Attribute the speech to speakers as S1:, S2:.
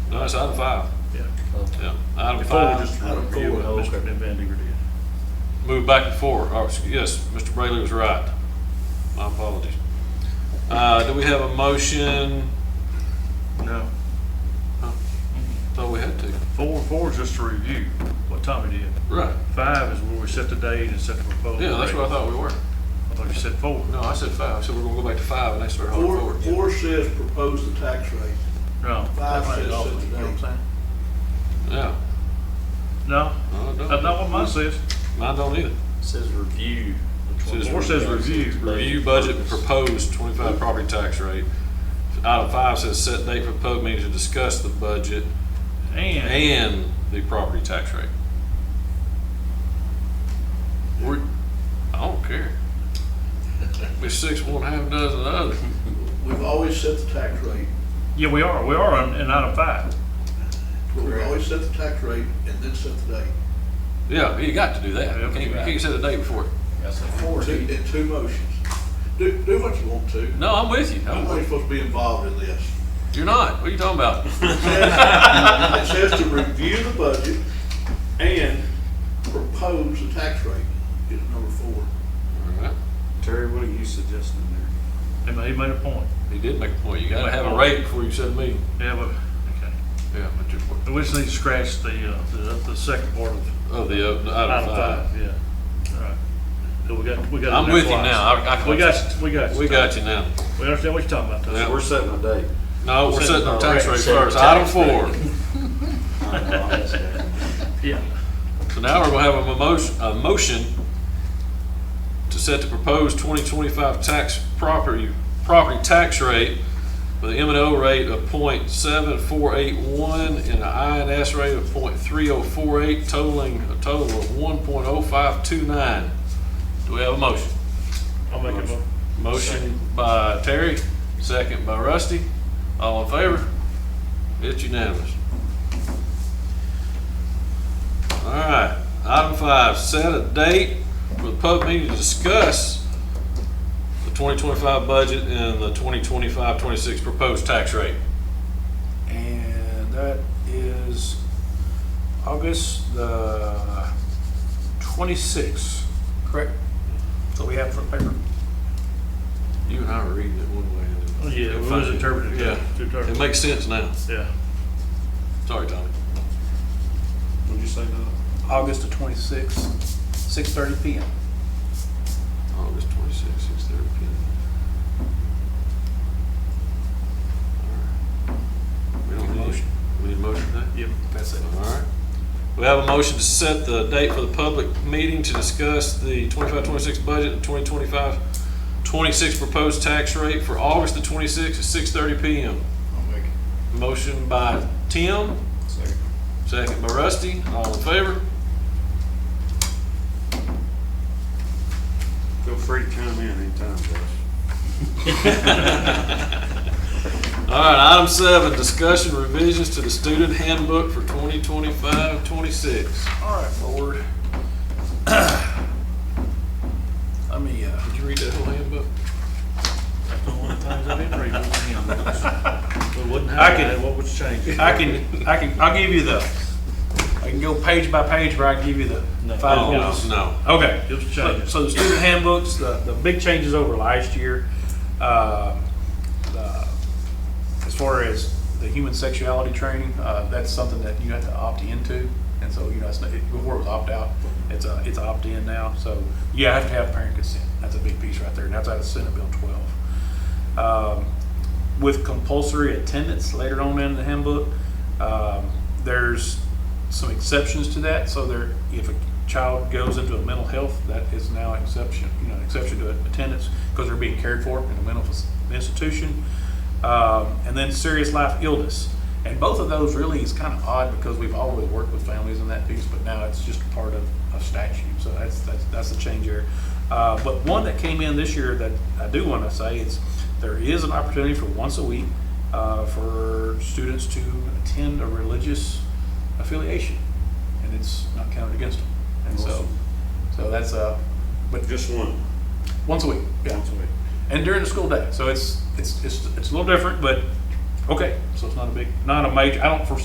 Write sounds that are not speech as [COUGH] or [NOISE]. S1: that's item five.
S2: Yeah.
S1: Yeah, item
S2: Before we
S1: five.
S2: just
S3: Item
S2: review what
S3: four,
S2: Mr.
S3: okay.
S2: Van Dinger did.
S1: Move back and forth. Oh, excuse- yes, Mr. Brayley was right. My apologies. Uh, do we have a motion?
S2: No.
S1: Thought we had to.
S2: Four, four is just to review what Tommy did.
S1: Right.
S2: Five is where we set the date and set the proposal.
S1: Yeah, that's what I thought we were.
S2: I thought you said four.
S1: No, I said five. I said we're gonna go back to five and they start hard
S3: Four,
S1: forward.
S3: four says propose the tax rate.
S2: No.
S3: Five
S2: That's
S3: says
S2: off,
S3: set the
S2: you know what I'm
S3: date.
S2: saying?
S1: Yeah.
S2: No,
S1: No, it
S2: that's
S1: don't.
S2: not what mine says.
S1: Mine don't either.
S4: Says review.
S1: Says
S2: Four says review.
S1: Review budget proposed twenty-five property tax rate. Item five says set date for public meeting to discuss the budget
S2: And,
S1: and the property tax rate. We're, I don't [LAUGHS] care. We're six, one half dozen of the other.
S3: We've always set the tax rate.
S2: yeah, we are, we are in in item five.
S3: We've always set the tax rate and then set the date.
S1: Yeah, you got to do that. You can't, you can't set a date before.
S4: That's a
S3: [LAUGHS]
S4: four.
S3: Two- In two motions. Do, do what you want to.
S1: No, I'm with you. I'm
S3: Nobody's
S1: with-
S3: supposed to be involved in this.
S1: You're not. What are you talking [LAUGHS] about?
S3: It says- it says to review the budget and propose the tax rate is number four.
S1: All right.
S5: Terry, what are you suggesting there?
S2: And he made a point.
S1: He did make a point. You gotta have a rate before you set a meeting.
S2: Yeah, but, okay.
S1: Yeah, but you're,
S2: We just need to scratch the, uh, the, the second part of
S1: oh, the, uh, the item
S2: item
S1: five.
S2: five, yeah. All right. So we got, we got. it
S1: I'm
S2: there
S1: with you
S2: twice.
S1: now. I- I-
S2: We got, we got.
S1: We got you now.
S2: We understand what you're talking about,
S1: Yeah.
S2: though.
S5: We're setting a date.
S1: No, we're setting our tax rate
S4: Setting our
S1: first. Item
S4: tax rate.
S1: four.
S5: I don't know, I'm just-
S2: Yeah.
S1: So now we're gonna have a motion, a motion to set the proposed twenty twenty-five tax property, property tax rate with an M and O rate of 0.7481 and an I and S rate of 0.3048, totaling a total of one point oh five two nine. Do we have a motion?
S2: I'll make a motion.
S1: Motion by Terry, second by Rusty. All in favor? It's unanimous. All right, item five, set a date for the public meeting to discuss the 2025 budget and the 2025-26 proposed tax rate.
S5: And that is August the twenty-sixth, correct? So we have for the paper.
S1: You and I were reading it one way. and then-
S2: Oh, Yeah, it was interpreted.
S1: Yeah, it
S2: Interpreted.
S1: makes sense now.
S2: Yeah.
S1: Sorry, Tommy.
S5: Would you say no?
S6: August the twenty-sixth, six thirty PM.
S1: August 26, 6:30 PM. We don't need, motion. we need a motion for that?
S2: Yep.
S6: That's it.
S1: All right. We have a motion to set the date for the public meeting to discuss the 25-26 budget and 2025-26 proposed tax rate for August the twenty-sixth at six thirty PM.
S3: I'll make it.
S1: Motion by Tim, second by Rusty, all in favor?
S5: Feel free to come in anytime, Josh.
S1: [LAUGHS] All right, item seven, discussion revisions to the student handbook for 2025, 26.
S6: All right, board. [CLEARS THROAT] Let me, uh,
S1: Did you read that whole handbook?
S2: [LAUGHS] I can. What was changed?
S6: I can, I can, I'll give you the, I can go page by page where I give you the
S2: No.
S6: five
S2: No.
S6: points.
S1: No.
S6: Okay.
S2: It was
S6: So-
S2: changed.
S6: So the student handbooks, the, the big changes over last year, uh, the- as far as the human sexuality training, uh, that's something that you have to opt into. And so, you know, it's not, it- before it was opt out, it's a, it's opt in now. So you have to have parent consent. That's a big piece right there. And that's out of Senate Bill twelve. Um, with compulsory attendance later on in the handbook. Um, there's some exceptions to that, so there, if a child goes into a mental health, that is now exception, you know, exception to attendance, because they're being cared for in a mental fac- institution. Um, and then serious life illness. And both of those really is kind of odd, because we've always worked with families in that piece, but now it's just part of, of statute, so that's, that's, that's a change there. Uh, but one that came in this year that I do want to say is there is an opportunity for once a week uh, for students to attend a religious affiliation, and it's not counted against them. And so, so that's uh, but
S5: Just one.
S6: once a week, yeah,
S5: Once a week.
S6: and during the school day. So it's it's it's it's a little different, but okay. So it's not a big, not a major. I don't foresee.